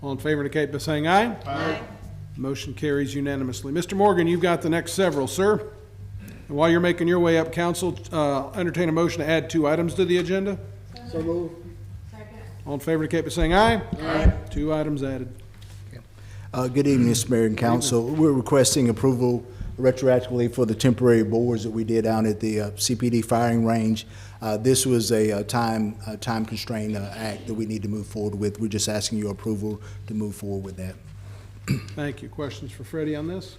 All in favor indicate by saying aye. Aye. Motion carries unanimously. Mr. Morgan, you've got the next several, sir. And while you're making your way up, council, uh, entertain a motion to add two items to the agenda. So moved. All in favor indicate by saying aye. Aye. Two items added. Uh, Good evening, Mr. Mayor and Council. We're requesting approval retroactively for the temporary boards that we did out at the uh, CPD firing range. Uh, This was a uh, time, a time constraint uh, act that we need to move forward with. We're just asking your approval to move forward with that. Thank you. Questions for Freddie on this?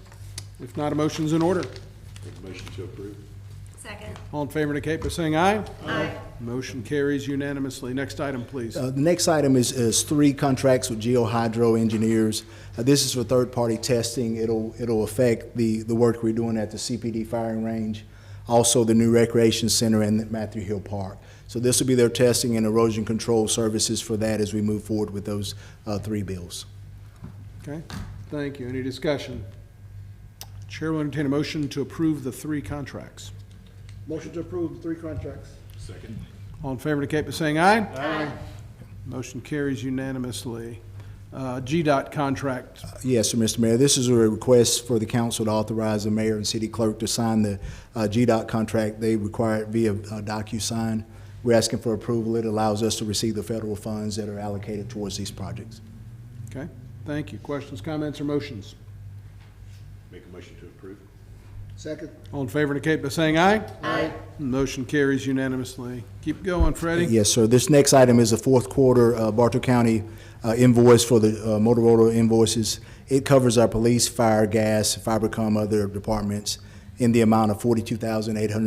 If not, a motion's in order. Motion to approve. Second. All in favor indicate by saying aye. Aye. Motion carries unanimously. Next item, please. Uh, The next item is, is three contracts with GeoHydro Engineers. Uh, This is for third-party testing. It'll, it'll affect the, the work we're doing at the CPD firing range, also the new recreation center and Matthew Hill Park. So this will be their testing and erosion control services for that as we move forward with those uh, three bills. Okay, thank you. Any discussion? Chair will entertain a motion to approve the three contracts. Motion to approve the three contracts. Second. All in favor indicate by saying aye. Aye. Motion carries unanimously. Uh, GDOT contract, Yes, sir, Mr. Mayor. This is a request for the council to authorize the mayor and city clerk to sign the uh, GDOT contract. They require it via uh, DocuSign. We're asking for approval. It allows us to receive the federal funds that are allocated towards these projects. okay? Thank you. Questions, comments, or motions? Make a motion to approve. Second. All in favor indicate by saying aye. Aye. Motion carries unanimously. Keep going, Freddie. Yes, sir. This next item is the fourth quarter uh, Bartow County uh, invoice for the uh, Motorola invoices. It covers our police, fire, gas, fibercom, other departments in the amount of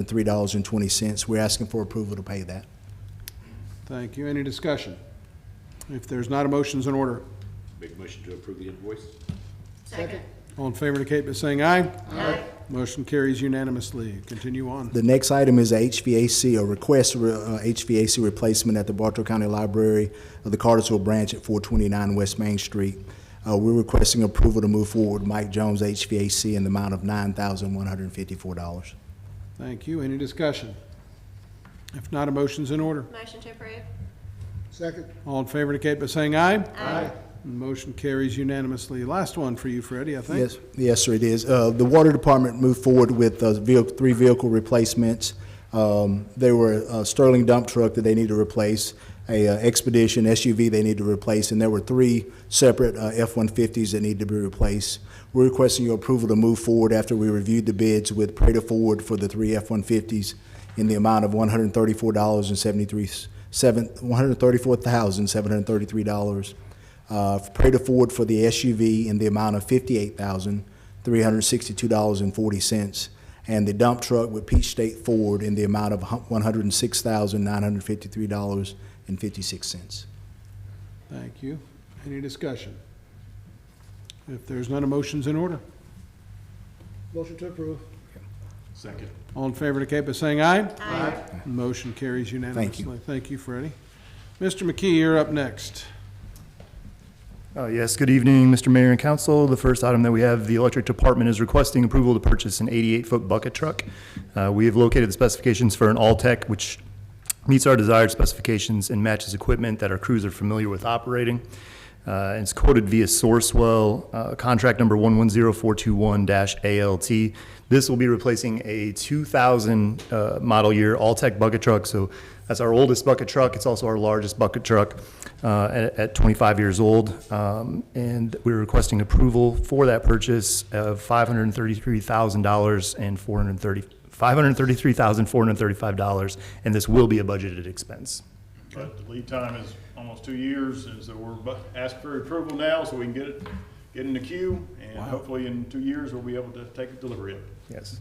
$42,803.20. We're asking for approval to pay that. Thank you. Any discussion? If there's not a motion's in order. Make a motion to approve the invoice. Second. All in favor indicate by saying aye. Aye. Motion carries unanimously. Continue on. Um, The next item is a HVAC, a request for uh, HVAC replacement at the Bartow County Library of the Cartersville Branch at 429 West Main Street. Uh, We're requesting approval to move forward with Mike Jones HVAC in the amount of $9,154. Thank you. Any discussion? If not, a motion's in order. Motion to approve. Second. All in favor indicate by saying aye. Aye. Motion carries unanimously. Last one for you, Freddie, I think. Yes, yes, sir, it is. Uh, The Water Department moved forward with uh, vehi- three vehicle replacements. Um, They were a Sterling dump truck that they need to replace, a uh, Expedition SUV they need to replace, and there were three separate uh, F-150s that need to be replaced. We're requesting your approval to move forward after we reviewed the bids with Prada Ford for the three F-150s in the amount of one hundred thirty-four dollars and seventy-three, seven, one hundred thirty-four thousand, seven hundred thirty-three dollars uh, Prada Ford for the SUV in the amount of fifty-eight thousand, three hundred sixty-two dollars and forty cents, and the dump truck with Peach State Ford in the amount of one hundred and six thousand, nine hundred fifty-three dollars and fifty-six cents. Thank you. Any discussion? If there's none, a motion's in order. Motion to approve. Second. All in favor indicate by saying aye. Aye. Motion carries unanimously. Thank you, Freddie. Mr. McKee, you're up next. Uh, Yes, good evening, Mr. Mayor and Council. The first item that we have, the electric department is requesting approval to purchase an 88-foot bucket truck. Uh, We have located the specifications for an All-Tech, which meets our desired specifications and matches equipment that our crews are familiar with operating. Uh, It's quoted via Sourcewell, uh, contract number 110421-ALT. This will be replacing a 2000 uh, model year All-Tech bucket truck, so that's our oldest bucket truck. It's also our largest bucket truck uh, at at 25 years old. Um, And we're requesting approval for that purchase of $533,000 and 430, $533,435, and this will be a budgeted expense. But the lead time is almost two years, and so we're bu- asked for approval now, so we can get it, get in the queue, and hopefully in two years, we'll be able to take delivery of it. Yes.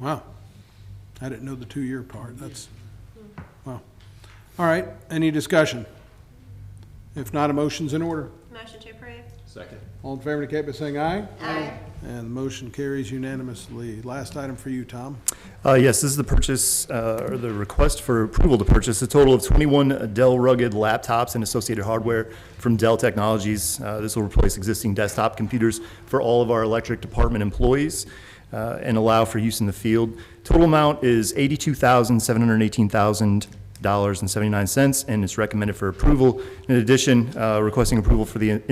Wow. I didn't know the two-year part. That's, wow. All right, any discussion? If not, a motion's in order. Motion to approve. Second. All in favor indicate by saying aye. Aye. And the motion carries unanimously. Last item for you, Tom. Uh, Yes, this is the purchase, uh, or the request for approval to purchase a total of 21 Dell rugged laptops and associated hardware from Dell Technologies. Uh, This will replace existing desktop computers for all of our electric department employees uh, and allow for use in the field. Total amount is $82,718,000.79, and it's recommended for approval. In addition, uh, requesting approval for the